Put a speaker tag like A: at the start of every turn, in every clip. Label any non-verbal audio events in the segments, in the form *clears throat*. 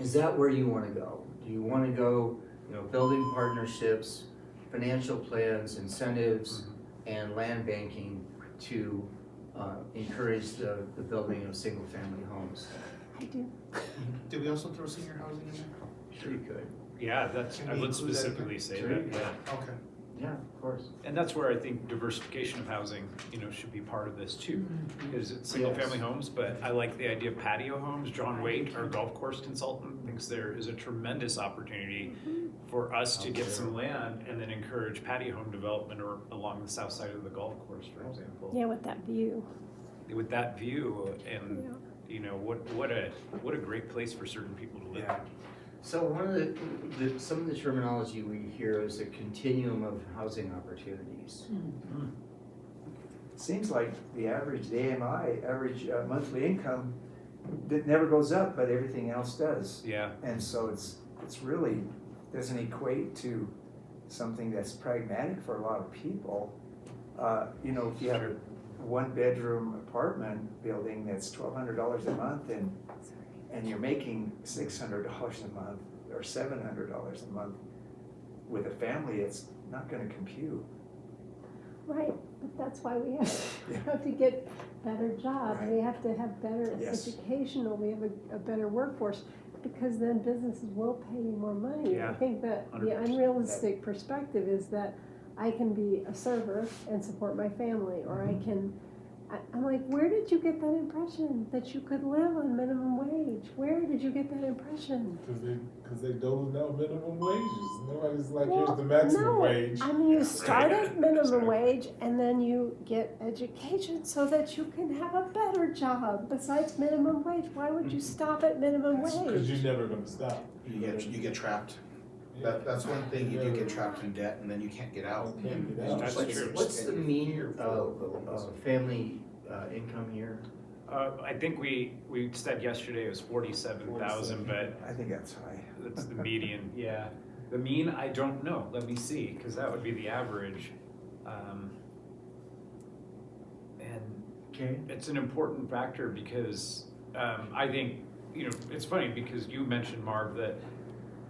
A: is that where you wanna go? Do you wanna go, you know, building partnerships, financial plans, incentives,
B: Mm-hmm.
A: and land banking to, uh, encourage the, the building of single-family homes?
C: I do.
D: Did we also throw senior housing in there?
A: Sure you could.
E: Yeah, that's,
D: Can
E: I
D: we
E: would
D: include that
E: specifically say
A: Sure.
E: that, yeah.
D: Okay.
A: Yeah, of course.
E: And that's where I think diversification of housing, you know, should be part of this too. Because it's single family homes, but I like the idea of patio homes. John Waite, our golf course consultant, thinks there is a tremendous opportunity for us to get some land and then encourage patio home development or along the south side of the golf course, for example.
C: Yeah, with that view.
E: With that view
C: Yeah.
E: and, you know, what, what a, what a great place for certain people to live.
A: Yeah. So one of the, the, some of the terminology we hear is a continuum of housing opportunities.
B: Hmm. Seems like the average, the AMI, average uh, monthly income, that never goes up, but everything else does.
E: Yeah,
B: And so it's, it's really, doesn't equate to something that's pragmatic for a lot of people. Uh, you know, if you have a one-bedroom apartment building that's twelve hundred dollars a month and, and you're making six hundred dollars a month or seven hundred dollars a month with a family, it's not gonna compute.
C: Right, but that's why we have,
B: *laughs*
C: we
B: Yeah.
C: have to get better jobs, we have to have better
B: Yes.
C: educational, we have a, a better workforce, because then businesses will pay you more money. I
E: Yeah,
C: think that the
E: 100%.
C: unrealistic perspective is that I can be a server and support my family, or
B: Mm-hmm.
C: I can, I, I'm like, where did you get that impression that you could live on minimum wage? Where did you get that impression?
F: Because they, because they doling out minimum wages. Nobody's like,
C: Well,
F: here's the maximum
C: no.
F: wage.
C: I mean, you start
E: Right.
C: at minimum
E: Sorry.
C: wage and then you get education so that you can have a better job besides minimum wage. Why would
E: Mm-hmm.
C: you stop at minimum
F: Because you're
C: wage?
F: never going to stop.
G: You get, you get trapped.
F: Yeah.
G: That, that's one thing, you do get trapped in debt and then you can't get out.
F: You can't get out.
E: That's
A: What's-
E: true.
A: What's the mean of, of family uh, income here?
E: uh, I think we, we said yesterday it was forty-seven thousand, but
B: I think that's high.
E: That's the median, *laughs* yeah. The mean, I don't know. Let me see, because that would be the average. Um, and
A: Okay.
E: it's an important factor because um, I think, you know, it's funny because you mentioned, Marv, that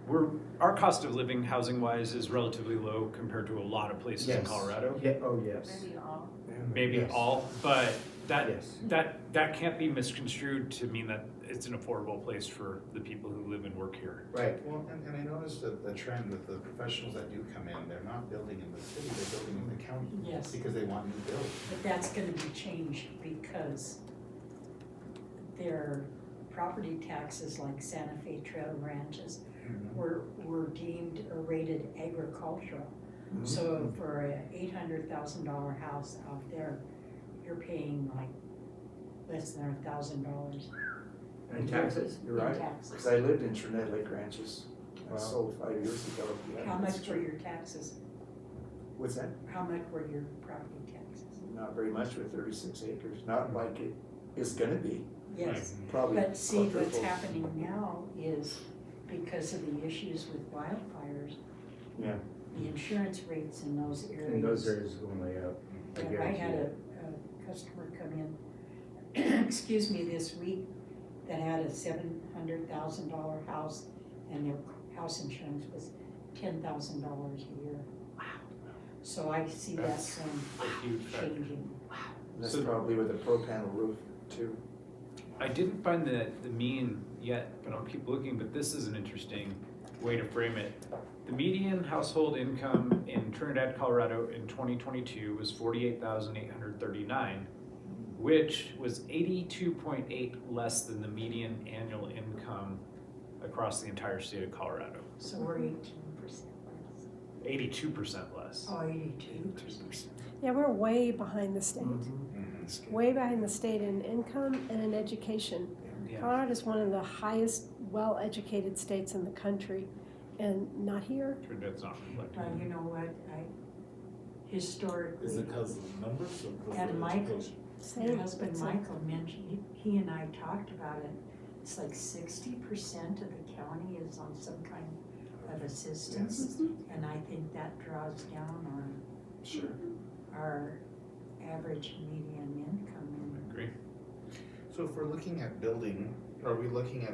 E: we're, our cost of living housing wise is relatively low compared to a lot of places in
A: Yes.
E: Colorado.
A: Yeah, oh, yes.
H: Maybe all.
E: Maybe
A: Yes.
E: all, but that,
A: Yes.
E: that, that can't be misconstrued to mean that it's an affordable place for the people who live and work here.
A: Right.
G: Well, and, and I noticed that the trend with the professionals that do come in, they're not building in the city, they're building in the county.
H: Yes.
G: Because they want new build.
H: But that's gonna be changed because their property taxes, like Santa Fe Trail Ranches, were, were deemed or rated agricultural.
B: Mm-hmm.
H: So for a eight hundred thousand dollar house out there, you're paying like less than a thousand dollars
B: Mm-hmm.
A: And taxes?
B: You're
H: in
B: right, because I
H: taxes.
B: lived in Trinidad Lake Ranches. I
A: Wow.
B: sold five years ago. Yeah,
H: How
B: that's
H: much were
B: true.
H: your taxes,
B: What's that?
H: how much were your property taxes?
B: Not very much with thirty-six acres, not like it is gonna be,
H: Yes.
B: probably.
H: But see, what's
B: quadruple.
H: happening now is because of the issues with wildfires.
A: Yeah.
H: The insurance rates in those areas.
A: And those areas will lay up, I
H: Yeah, I
A: guarantee
H: had
A: it.
H: a, a customer come in, *clears throat* excuse me, this week, that had a seven hundred thousand dollar house, and their house insurance was ten thousand dollars a year. Wow. So I see that
E: That's
H: trend
E: A huge factor.
H: changing.
B: That's
E: So-
B: probably with a pro panel roof too.
E: I didn't find the, the mean yet, but I'll keep looking, but this is an interesting way to frame it. The median household income in Trinidad, Colorado in twenty twenty-two was forty-eight thousand eight hundred thirty-nine, which was eighty-two point eight less than the median annual income across the entire state of Colorado.
H: So we're eighteen percent less.
E: Eighty-two percent less.
H: Oh, eighty-two
C: Yeah, we're way behind the state,
E: Mm-hmm.
G: Mhm.
C: way behind the state in income and in education.
E: Yeah,
C: Colorado's one of the highest well-educated states in the country and not here.
E: Trinidad's not reflecting.
H: Well, you know what, I, historically.
F: Is it because of the numbers or because
H: And
F: of
H: Michael.
F: education?
H: Your
C: Same.
H: husband
C: It's
H: Michael mentioned, he, he and I talked about it, it's like sixty percent of the county is on some kind of assistance. And I think that draws down
B: Sure.
H: on our average median income in
E: Agree.
G: So if we're looking at building, are we looking at